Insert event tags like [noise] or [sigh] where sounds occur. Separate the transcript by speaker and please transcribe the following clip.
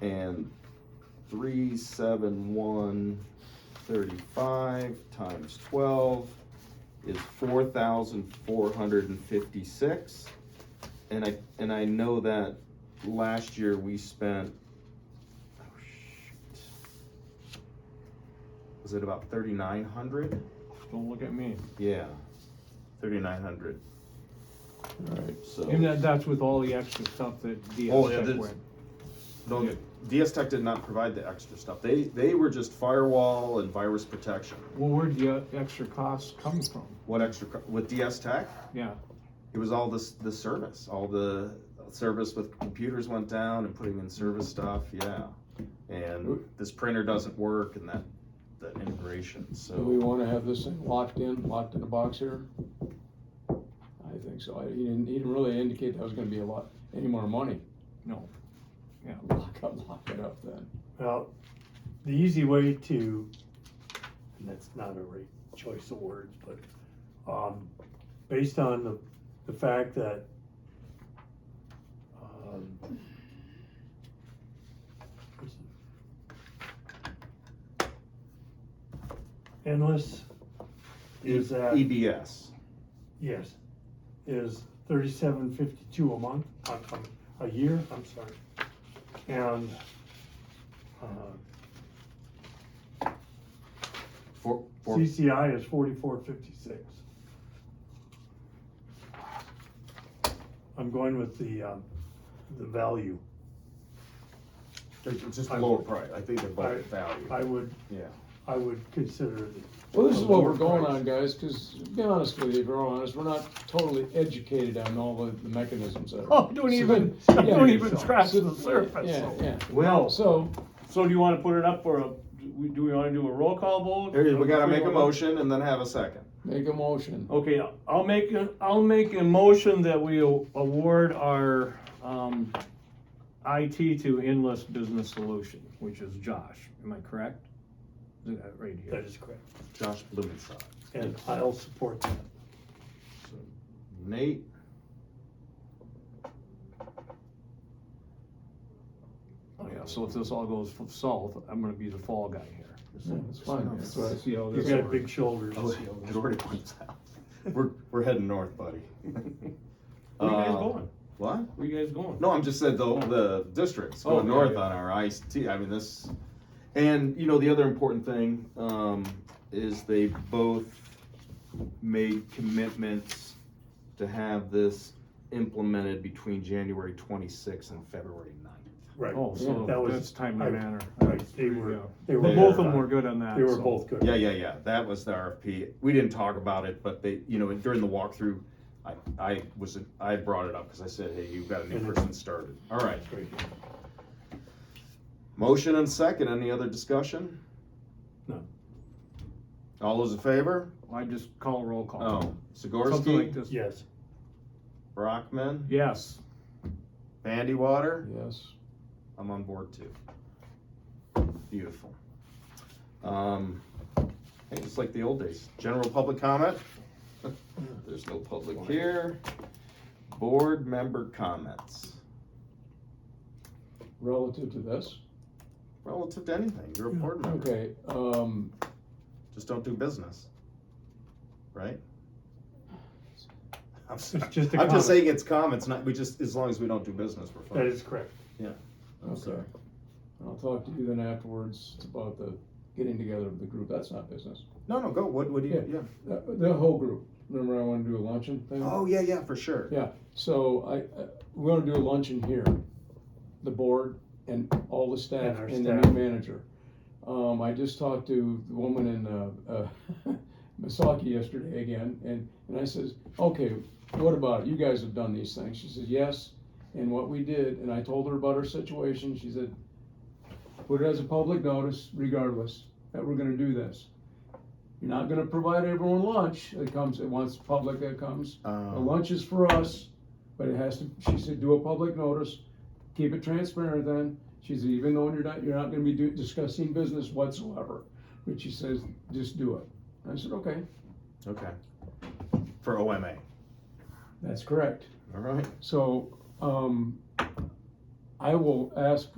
Speaker 1: And three, seven, one, thirty-five times twelve is four thousand four hundred and fifty-six. And I, and I know that last year we spent, oh shoot. Was it about thirty-nine hundred?
Speaker 2: Don't look at me.
Speaker 1: Yeah, thirty-nine hundred,
Speaker 2: Alright.
Speaker 1: so.
Speaker 2: And that, that's with all the extra stuff that
Speaker 1: Oh, yeah,
Speaker 2: DSTech
Speaker 1: this-
Speaker 2: went.
Speaker 1: Don't DS Tech did not provide the extra stuff. They they were just firewall and virus protection.
Speaker 2: Well, where'd the uh, extra costs come from?
Speaker 1: What extra co- with DS Tech?
Speaker 2: Yeah,
Speaker 1: It was all this the service, all the service with computers went down and putting in service stuff. Yeah, and this printer doesn't work and that that integration.
Speaker 3: Do we
Speaker 1: So
Speaker 4: [laughs]
Speaker 3: wanna have this thing locked in, locked in a box here? I think so, I- he didn't, he didn't really indicate that was gonna be a lot, any more money.
Speaker 2: No. Yeah.
Speaker 3: [laughs] Lock up, lock it up then.
Speaker 5: Well, the easy way to, and that's not a right choice of words, but, um, based on the, the fact that, um, what's it? endless is
Speaker 1: E-
Speaker 5: that,
Speaker 1: EBS.
Speaker 5: yes, is thirty-seven fifty-two a month, uh, um, a year, I'm sorry. And, uh,
Speaker 1: For, for
Speaker 5: CCI is forty-four fifty-six. I'm going with the, um, the value.
Speaker 1: it's just lower price. I think they're both value.
Speaker 5: I would,
Speaker 1: yeah.
Speaker 5: I would consider the.
Speaker 3: Well, this is what we're going
Speaker 5: price.
Speaker 3: on, guys, cause to be honest with you, if we're honest, we're not totally educated on all the the mechanisms of it.
Speaker 5: Oh,
Speaker 1: [laughs]
Speaker 5: don't even-
Speaker 3: So-
Speaker 5: don't
Speaker 3: yeah.
Speaker 5: even scratch
Speaker 3: So-
Speaker 5: the surface. Oh.
Speaker 3: Yeah, yeah.
Speaker 1: Well,
Speaker 3: So,
Speaker 4: So do you wanna put it up for a, do we- do we wanna do a roll call vote?
Speaker 1: there you- we gotta make a motion and then have a second.
Speaker 3: make a motion.
Speaker 4: Okay, I'll make, a- I'll make a motion that we award our, um, IT to Endless Business Solution, which is Josh, am I correct? Is that Right here.
Speaker 5: That is correct,
Speaker 1: Josh Blumenstock,
Speaker 5: and I'll support that.
Speaker 1: Nate,
Speaker 4: Oh, yeah, so if this all goes f- south, I'm gonna be the fall guy here.
Speaker 3: Yeah, It's fine, that's all right.
Speaker 4: See how
Speaker 5: You've
Speaker 4: this
Speaker 5: got
Speaker 4: works.
Speaker 5: big shoulders.
Speaker 1: Oh, it already [laughs] went south. We're, we're heading north, buddy.
Speaker 4: Where you guys
Speaker 1: Uh,
Speaker 4: going?
Speaker 1: What?
Speaker 4: Where you guys going?
Speaker 1: No, I'm just saying the, the districts
Speaker 4: Oh,
Speaker 1: going
Speaker 4: okay,
Speaker 1: north
Speaker 4: yeah.
Speaker 1: on our ICT. I mean, this, and you know, the other important thing, um, is they both made commitments to have this implemented between January twenty-sixth and February 9th.
Speaker 5: Right,
Speaker 4: Oh,
Speaker 5: That
Speaker 4: so
Speaker 5: was-
Speaker 4: that's timely
Speaker 5: I-
Speaker 4: manner.
Speaker 5: right, they were, they were.
Speaker 1: They
Speaker 4: Both of
Speaker 1: are-
Speaker 4: them were good on that.
Speaker 5: They were
Speaker 4: so.
Speaker 5: both good.
Speaker 1: Yeah, yeah, yeah. That was the RFP. We didn't talk about it, but they, you know, during the walkthrough, I, I was, I brought it up because I said, hey, you've got a
Speaker 4: Mm-hmm.
Speaker 1: new person started. All right.
Speaker 5: Great.
Speaker 1: Motion and second. Any other discussion?
Speaker 5: No.
Speaker 1: All those in favor?
Speaker 4: I just call roll call.
Speaker 1: Oh,
Speaker 4: Something like
Speaker 1: Sikorsky,
Speaker 4: this.
Speaker 5: Yes,
Speaker 1: Brockman,
Speaker 4: Yes.
Speaker 1: Bandy Water.
Speaker 3: Yes.
Speaker 1: I'm on board too. Beautiful. Um, hey, it's like the old days. General public comment? [laughs] There's no public here. Board member comments
Speaker 3: Relative to this,
Speaker 1: relative to anything. You're a board member.
Speaker 3: okay, um,
Speaker 1: Just don't do business. Right? I'm s-
Speaker 5: It's just a
Speaker 1: I'm
Speaker 5: comment.
Speaker 1: just saying it's comments, not, we just, as long as we don't do business, we're fine.
Speaker 5: that is correct.
Speaker 1: I'm
Speaker 3: okay.
Speaker 1: sorry.
Speaker 3: I'll talk to you then afterwards, it's about the getting together of the group, that's not business.
Speaker 1: No, no, go, what, what do you, yeah.
Speaker 3: The, the whole group, remember I wanna do a luncheon thing?
Speaker 1: Oh, yeah, yeah, for sure.
Speaker 3: So I, uh, we wanna do a luncheon here, the board and all the staff
Speaker 5: And our
Speaker 3: and the new
Speaker 5: staff.
Speaker 3: manager. Um, I just talked to the woman in, uh, uh, [laughs] Misaki yesterday again, and, and I says, okay, what about, it? you guys have done these things, she says, yes, and what we did, and I told her about her situation, she said, put it as a public notice regardless, that we're gonna do this. You're not gonna provide everyone lunch that comes, that wants public that comes, the
Speaker 1: Um,
Speaker 3: lunch is for us, but it has to, she said, do a public notice, keep it transparent then. She said, even though you're not, you're not gonna be do- discussing business whatsoever, but she says, just do it. I said, okay,
Speaker 1: Um, okay. For OMA,
Speaker 3: that's correct.
Speaker 1: all right.
Speaker 3: So, um, I will ask